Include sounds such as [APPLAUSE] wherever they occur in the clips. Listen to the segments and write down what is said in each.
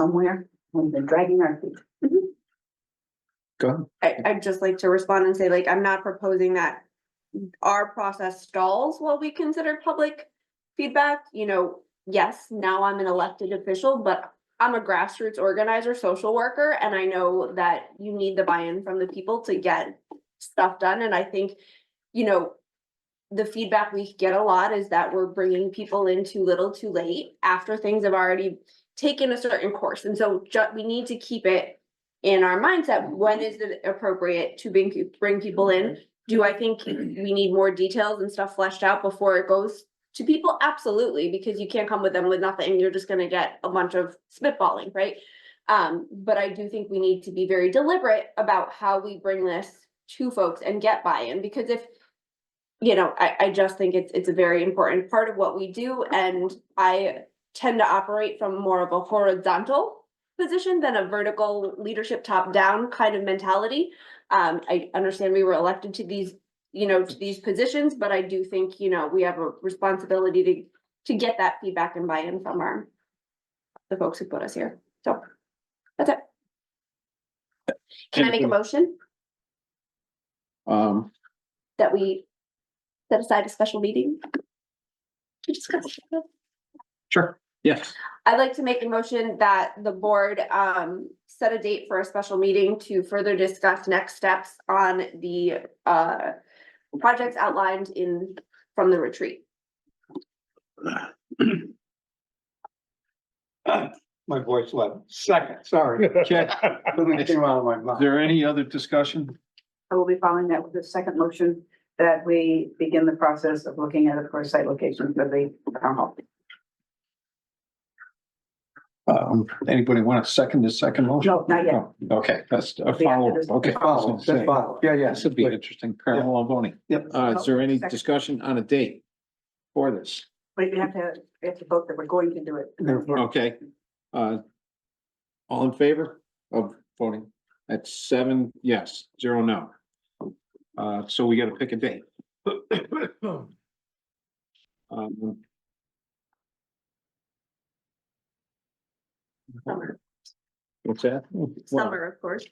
somewhere. We've been dragging our feet. Go ahead. I, I'd just like to respond and say, like, I'm not proposing that our process stalls while we consider public feedback, you know, yes, now I'm an elected official, but I'm a grassroots organizer, social worker, and I know that you need the buy-in from the people to get stuff done, and I think, you know, the feedback we get a lot is that we're bringing people in too little, too late after things have already taken a certain course, and so ju- we need to keep it in our mindset, when is it appropriate to bring, peo- bring people in? Do I think we need more details and stuff fleshed out before it goes to people? Absolutely, because you can't come with them with nothing. You're just gonna get a bunch of spitballing, right? Um, but I do think we need to be very deliberate about how we bring this to folks and get buy-in, because if you know, I, I just think it's, it's a very important part of what we do, and I tend to operate from more of a horizontal position than a vertical leadership top down kind of mentality. Um, I understand we were elected to these, you know, to these positions, but I do think, you know, we have a responsibility to to get that feedback and buy-in from our the folks who put us here. So that's it. Can I make a motion Um, that we set aside a special meeting? To discuss. sure, yes, I'd like to make a motion that the board um set a date for a special meeting to further discuss next steps on the uh. Projects outlined in from the retreat. My voice left. Second, sorry. Okay. Something came out of my Is mouth. there any other discussion? I will be following that with the second motion that we begin the process of looking at, of course, site location for the town hall. Um, anybody want to second the second motion? No, not yet. Oh, No. Okay, that's a after follow, this- okay. Follow, That's what I'm that's saying. follow. Yeah, yeah. This would be an interesting parallel voting. Yep. Uh, is there any Second. discussion on a date for this? But we have to, we have to vote that we're going to do it. Therefore, Okay, uh. All in favor of voting? That's seven yes, zero no. Uh, so we gotta pick a date. Um, Summer, what's that? Well, summer, of course.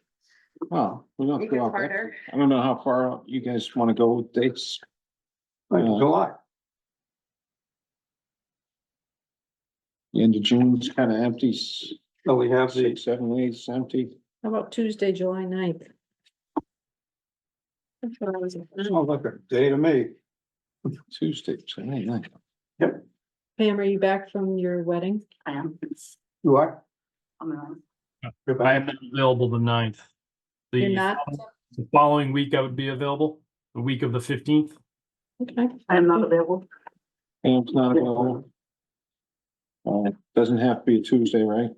Well, we don't Make go it out that- harder. I don't know how far out you guys wanna go with dates. Like July. The End of June's kinda empty, s- So we have the, six, seven, eight, it's empty. How about Tuesday, July ninth? That's what I was, Mm-hmm. sounds like a oh, day to me. Tuesday, July ninth. Pam, are you back from your wedding? I am. You are? I'm gonna- I am not available the ninth. You're The, not? the following week I would be available, the week of the fifteenth. Okay. I am not available. And it's not available. Uh, doesn't have to be a Tuesday, right?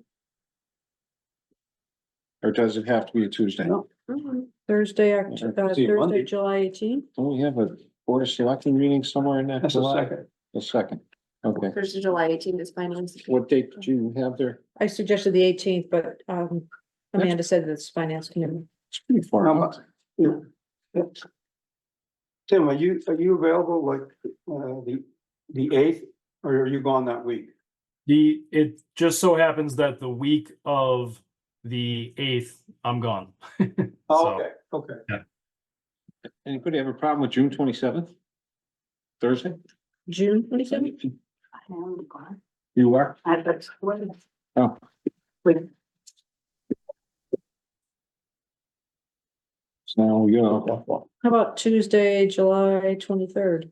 Or does it have to be a Tuesday? No. Mm-hmm. Thursday, Oct- Yeah, uh, see you Monday. Thursday, July eighteenth? Don't Oh, we have a board of selecting meeting somewhere in that That's the July? second. The second, okay. First of July eighteenth is finance. What date do you have there? I suggested the eighteenth, but um That's- Amanda said that's finance committee. It's pretty far Um, out. Tim, are you, are you available like, uh, the, the eighth, or are you gone that week? The, it just so happens that the week of the eighth, I'm gone. [LAUGHS] Oh, So- Okay, okay. Anybody have a problem with June twenty-seventh? Thursday? June twenty seventh? I am gone. You are? I, but, what? Oh. Wait, So now we go. How about Tuesday, July twenty-third?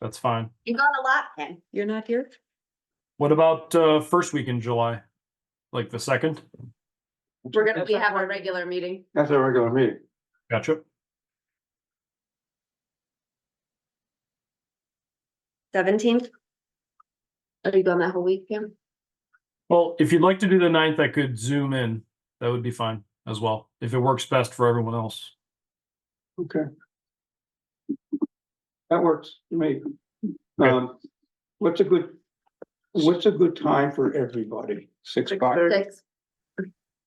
That's fine. You got a lot, Ken. You're not here? What about, uh, first week in July? Like the second? We're gonna, we have our regular meeting. That's our regular meeting. Gotcha. Seventeenth? Are you gone that whole week, Pam? Well, if you'd like to do the ninth, I could zoom in. That would be fine as well, if it works best for everyone else. Okay. That works for me. Okay. Um, what's a good, what's a good time for everybody? Six six o'clock, thirty. Six.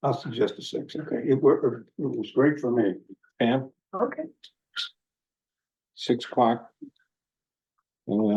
I'll suggest a six, okay? It worked, it was great for me. Pam, Okay, six o'clock. Anyone